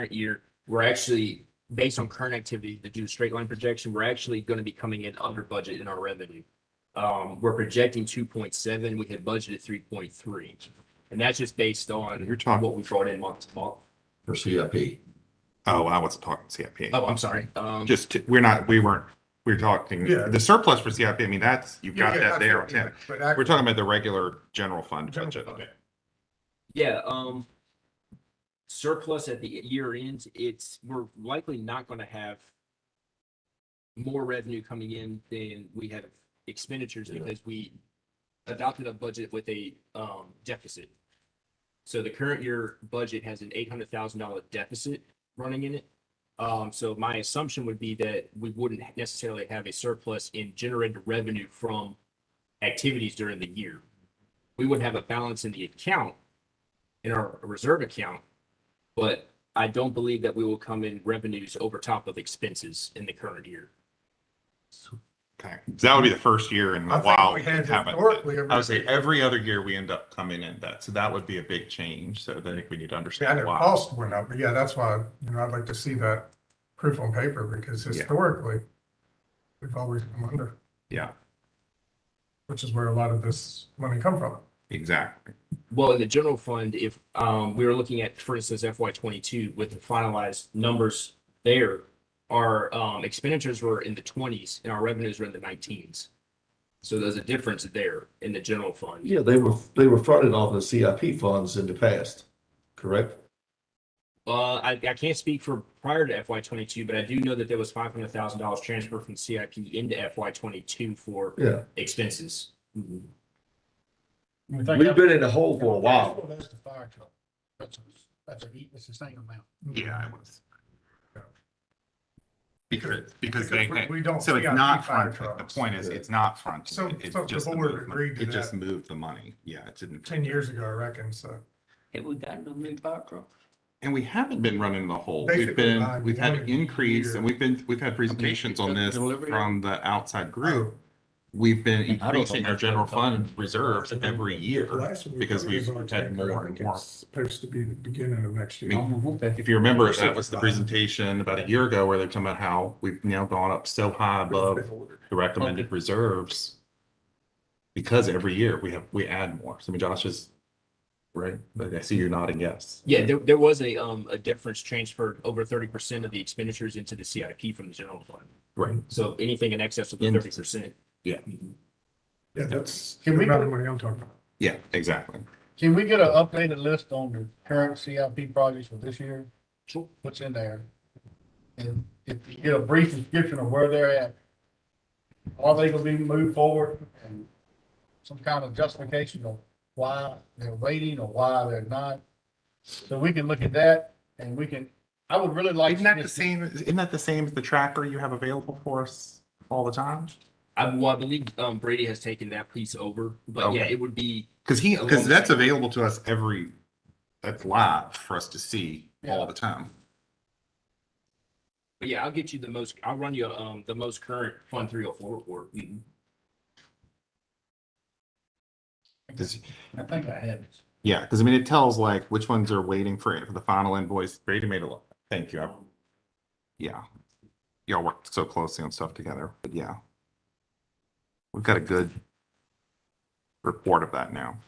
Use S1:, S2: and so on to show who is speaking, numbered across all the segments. S1: current year, we're actually, based on current activity to do straight line projection, we're actually going to be coming in under budget in our revenue. Um, we're projecting two point seven, we had budgeted three point three. And that's just based on
S2: You're talking,
S1: what we brought in month to month.
S3: for CIP.
S2: oh, I wasn't talking CIP.
S1: Oh, I'm sorry. Um,
S2: Just, to- we're not, we weren't, we're talking,
S4: Yeah.
S2: the surplus for CIP, I mean, that's, you've got
S4: Yeah, yeah,
S2: that there. on
S4: absolutely,
S2: hand.
S4: But I-
S2: We're talking about the regular general fund
S4: General
S2: budget.
S4: fund.
S1: Yeah, um, surplus at the year end, it's, we're likely not gonna have more revenue coming in than we have expenditures
S3: Yeah.
S1: because we adopted a budget with a, um, deficit. So the current year budget has an eight hundred thousand dollar deficit running in it. Um, so my assumption would be that we wouldn't necessarily have a surplus in generated revenue from activities during the year. We would have a balance in the account, in our reserve account. But I don't believe that we will come in revenues over top of expenses in the current year.
S2: Okay, So that would be the first year in
S4: I
S2: a
S4: think
S2: while.
S4: we
S2: we
S4: had
S2: haven't-
S4: historically a-
S2: I would say every other year we end up coming in that, so that would be a big change, so I think we need to
S4: Yeah, I know
S2: understand why.
S4: cost went up, but yeah, that's why, you know, I'd like to see that proof on paper because
S2: Yeah.
S4: historically, we've always come under,
S2: Yeah,
S4: which is where a lot of this money come from.
S2: exactly.
S1: Well, in the general fund, if um we were looking at, for instance, FY twenty-two with the finalized numbers there. Our um expenditures were in the twenties and our revenues were in the nineteens. So there's a difference there in the general fund.
S3: Yeah, they were, they were funded off the CIP funds in the past, correct?
S1: Uh, I, I can't speak for prior to FY twenty-two, but I do know that there was five hundred thousand dollars transfer from CIP into FY twenty-two for
S3: Yeah,
S1: expenses.
S3: we've been in the hole for a while.
S5: That's the fire truck. That's, a- that's a, that's the same amount.
S2: Yeah, it was. Because, because
S4: Because
S2: they,
S4: we- we don't
S2: so
S4: see
S2: it's
S4: our
S2: not
S4: P five
S2: front, the
S4: trucks.
S2: point is,
S3: Yeah.
S2: it's not front.
S4: So-
S2: It's
S4: so the
S2: just
S4: board
S2: movement.
S4: agreed to
S2: It just
S4: that.
S2: moved the money, yeah, it didn't.
S4: Ten years ago, I reckon, so.
S6: Have we gotten a new fire truck?
S2: And we haven't been running the whole. We've
S4: Basically,
S2: been,
S4: like
S2: we've had
S4: one
S2: an increase
S4: year.
S2: and we've been, we've had presentations on this
S6: Delivery.
S2: from the outside group. We've been
S6: And I don't
S2: increasing our
S6: think-
S2: general fund reserves every year.
S4: Last year,
S2: because we've had more and more.
S4: It's Supposed to be the beginning of next year.
S2: I If you remember, that was the presentation about a year ago where they're talking about how we've now gone up so high above the recommended reserves. Because every year we have, we add more. So I mean, Josh is, right? But I see you're nodding yes.
S1: Yeah, there, there was a, um, a difference transferred over thirty percent of the expenditures into the CIP from the general fund.
S2: Right.
S1: So anything in excess of
S2: In-
S1: thirty percent.
S4: Yeah, that's
S5: Can we-
S4: another money I'm talking about.
S2: Yeah, exactly.
S5: Can we get an updated list on the current CIP projects for this year? What's in there? And if you get a brief description of where they're at, are they gonna be moved forward and some kind of justification of why they're waiting or why they're not? So we can look at that and we can, I would really like.
S2: Isn't that the same, isn't that the same as the tracker you have available for us all the time?
S1: I, well, I believe, um, Brady has taken that piece over, but yeah,
S2: Okay.
S1: it would be,
S2: Cause he, cause that's available to us every, that's live for us to see all the time.
S1: but yeah, I'll get you the most, I'll run you, um, the most current Fund three oh four report.
S2: Cause,
S5: I think I had it.
S2: yeah, cause I mean, it tells like which ones are waiting for, for the final invoice. Brady made a lot. Thank you. I- Yeah. Y'all worked so closely on stuff together, but yeah. We've got a good report of that now.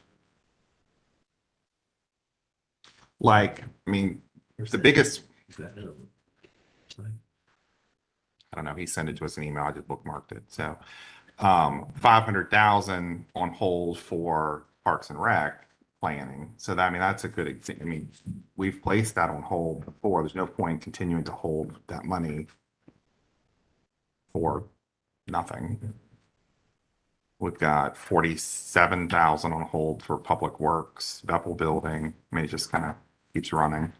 S2: Like, I mean, the biggest I don't know, he sent it to us an email, I just bookmarked it, so. Um, five hundred thousand on hold for Parks and Rec planning, so that, I mean, that's a good example, I mean, we've placed that on hold before, there's no point in continuing to hold that money for nothing. We've got forty-seven thousand on hold for Public Works, Bethel Building, I mean, it just kind of keeps running.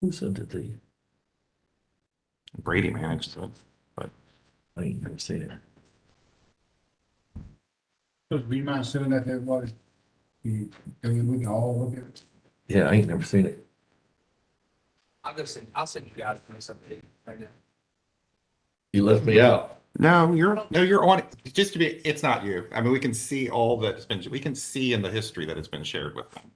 S6: Who sent it to you?
S2: Brady managed it.
S6: I ain't never seen it.
S5: Would you mind sending that to everybody? You- I mean, we can all look at it.
S6: Yeah, I ain't never seen it.
S7: I'll go send, I'll send you guys this update right now.
S3: You left me out.
S2: No, you're, no, you're on, just to be, it's not you. I mean, we can see all that has been, we can see in the history that has been shared with them.